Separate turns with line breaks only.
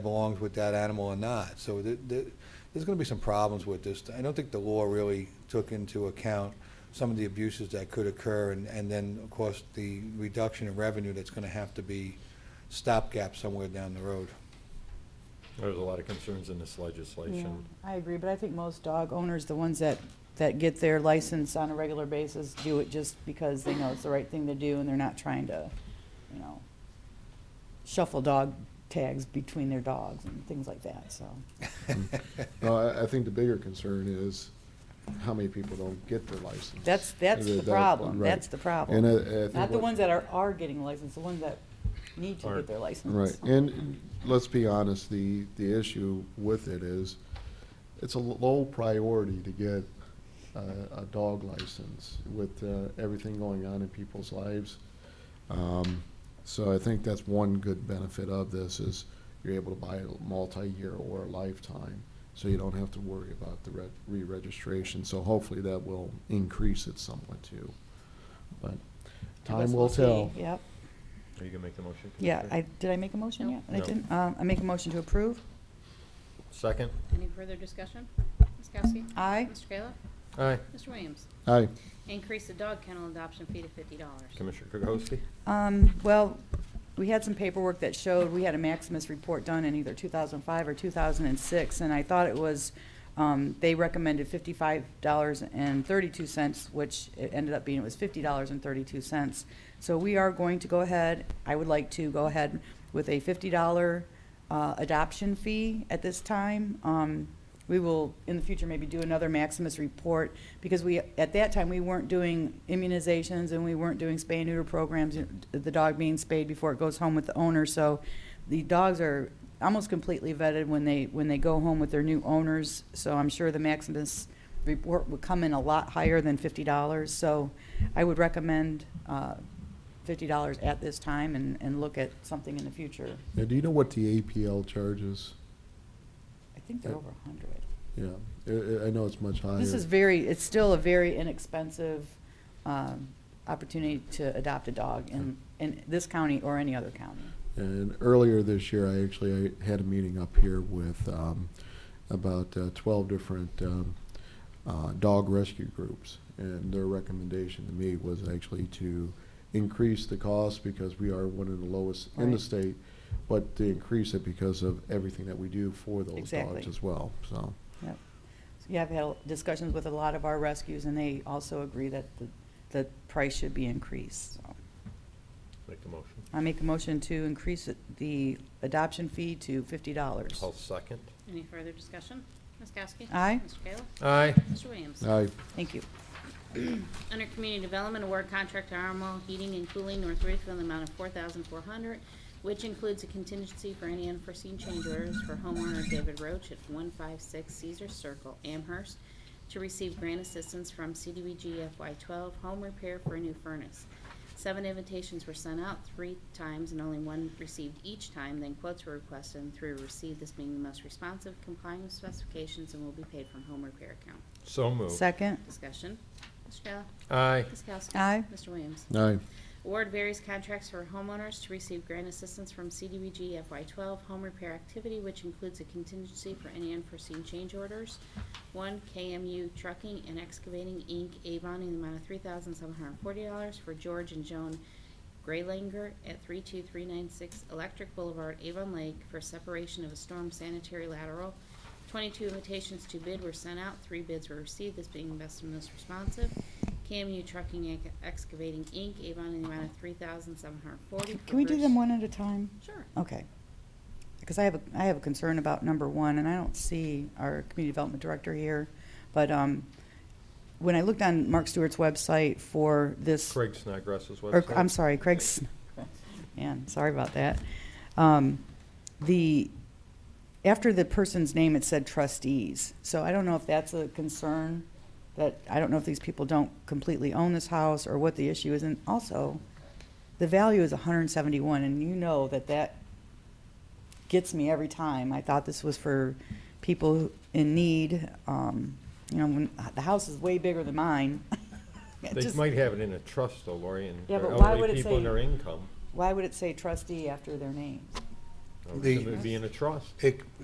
belongs with that animal or not. So th- th- there's going to be some problems with this. I don't think the law really took into account some of the abuses that could occur, and and then, of course, the reduction in revenue that's going to have to be stopgap somewhere down the road.
There's a lot of concerns in this
Yeah,
legislation.
I agree, but I think most dog owners, the ones that, that get their license on a regular basis, do it just because they know it's the right thing to do and they're not trying to, you know, shuffle dog tags between their dogs and things like that, so.
No, I, I think the bigger concern is how many people don't get their license.
That's, that's the
That-
problem,
right.
that's the
And I, I
problem.
think.
Not the
what-
ones that are, are getting licensed, the ones that need to
Aren't.
get their license.
Right, and let's be honest, the, the issue with it is, it's a low priority to get a, a dog license with, uh, everything going on in people's lives. Um, so I think that's one good benefit of this is you're able to buy a multi-year or a lifetime, so you don't have to worry about the re- re-registration, so hopefully that will increase it somewhat too. But
I guess
time
we'll
will
see.
tell.
Yep,
Are you gonna make the motion?
yeah,
Commissioner?
I, did I make a motion yet? I
No.
didn't, uh, I make a motion to approve?
Second?
Any further discussion? Ms. Kowski?
Aye.
Mr. Kayla?
Aye.
Mr. Williams?
Aye.
Increase the dog kennel adoption fee to fifty dollars.
Commissioner Kukowski?
Um, well, we had some paperwork that showed, we had a Maximus report done in either 2005 or 2006, and I thought it was, um, they recommended $55.32, which it ended up being, it was $50.32. So we are going to go ahead, I would like to go ahead with a $50 uh, adoption fee at this time. Um, We will, in the future, maybe do another Maximus report, because we, at that time, we weren't doing immunizations and we weren't doing spay neuter programs, you know, the dog being spayed before it goes home with the owner, so the dogs are almost completely vetted when they, when they go home with their new owners, so I'm sure the Maximus report would come in a lot higher than fifty dollars, so I would recommend uh, fifty dollars at this time and, and look at something in the future.
Now, do you know what the APL charges?
I think they're over a hundred.
Yeah, I, I- I know it's much higher.
This is very, it's still a very inexpensive um, opportunity to adopt a dog in, in this county or any other county.
And earlier this year, I actually I had a meeting up here with um, about uh, 12 different um, uh, dog rescue groups, and their recommendation to me was actually to increase the cost because we are one of the lowest in the
Right.
state, but to increase it because of everything that we do for those
Exactly.
dogs as well. So,
Yep. So, Yeah, I've had discussions with a lot of our rescues, and they also agree that the, the price should be increased. So
Make the motion.
I make a motion to increase it- the adoption fee to fifty dollars.
I'll second.
Any further discussion? Ms. Kowski?
Aye.
Mr. Kayla?
Aye.
Mr. Williams?
I
Thank you.
Under Community Development, award contract to Armo Heating and Cooling North Ridgeville in the amount of four thousand four hundred, which includes a contingency for any unforeseen change orders for homeowner David Roach at one five six Caesar Circle, Amherst, to receive grant assistance from CDBG FY twelve home repair for a new furnace. Seven invitations were sent out three times and only one received each time, then quotes were requested and three were received, this being the most responsive, complying with specifications, and will be paid from home repair account.
So moved.
Second,
Discussion. Mr. Kayla?
Aye.
Ms. Kowski?
Aye.
Mr. Williams?
Aye.
Award various contracts for homeowners to receive grant assistance from CDBG FY12 home repair activity, which includes a contingency for any unforeseen change orders. One, KMU Trucking and Excavating, Inc., Avon, in the amount of $3,740 for George and Joan Graylinger at 32396 Electric Boulevard, Avon Lake, for separation of a storm sanitary lateral. 22 invitations to bid were sent out, three bids were received, this being the best and most responsive. KMU Trucking and Excavating, Inc., Avon, in the amount of 3740
can we do them one at a time?
Sure.
Okay. Because I have, a I have a concern about number one, and I don't see our community development director here. But um, when I looked on Mark Stewart's website for this.
Craig Snodgrass's
Or,
website.
I'm sorry, Craig's, man, sorry about that. Um, The, after the person's name, it said trustees. So I don't know if that's a concern, that, I don't know if these people don't completely own this house or what the issue is. And also, the value is 171, and you know that that gets me every time. I thought this was for people in need. um, You know, when, the house is way bigger than mine. It
They
just-
might have it in a trust though, Lori, and
Yeah,
their
but why
elderly
would it
people and
say-
their income.
Why would it say trustee after their name?
I Or
The-
Should it be in a trust?
It,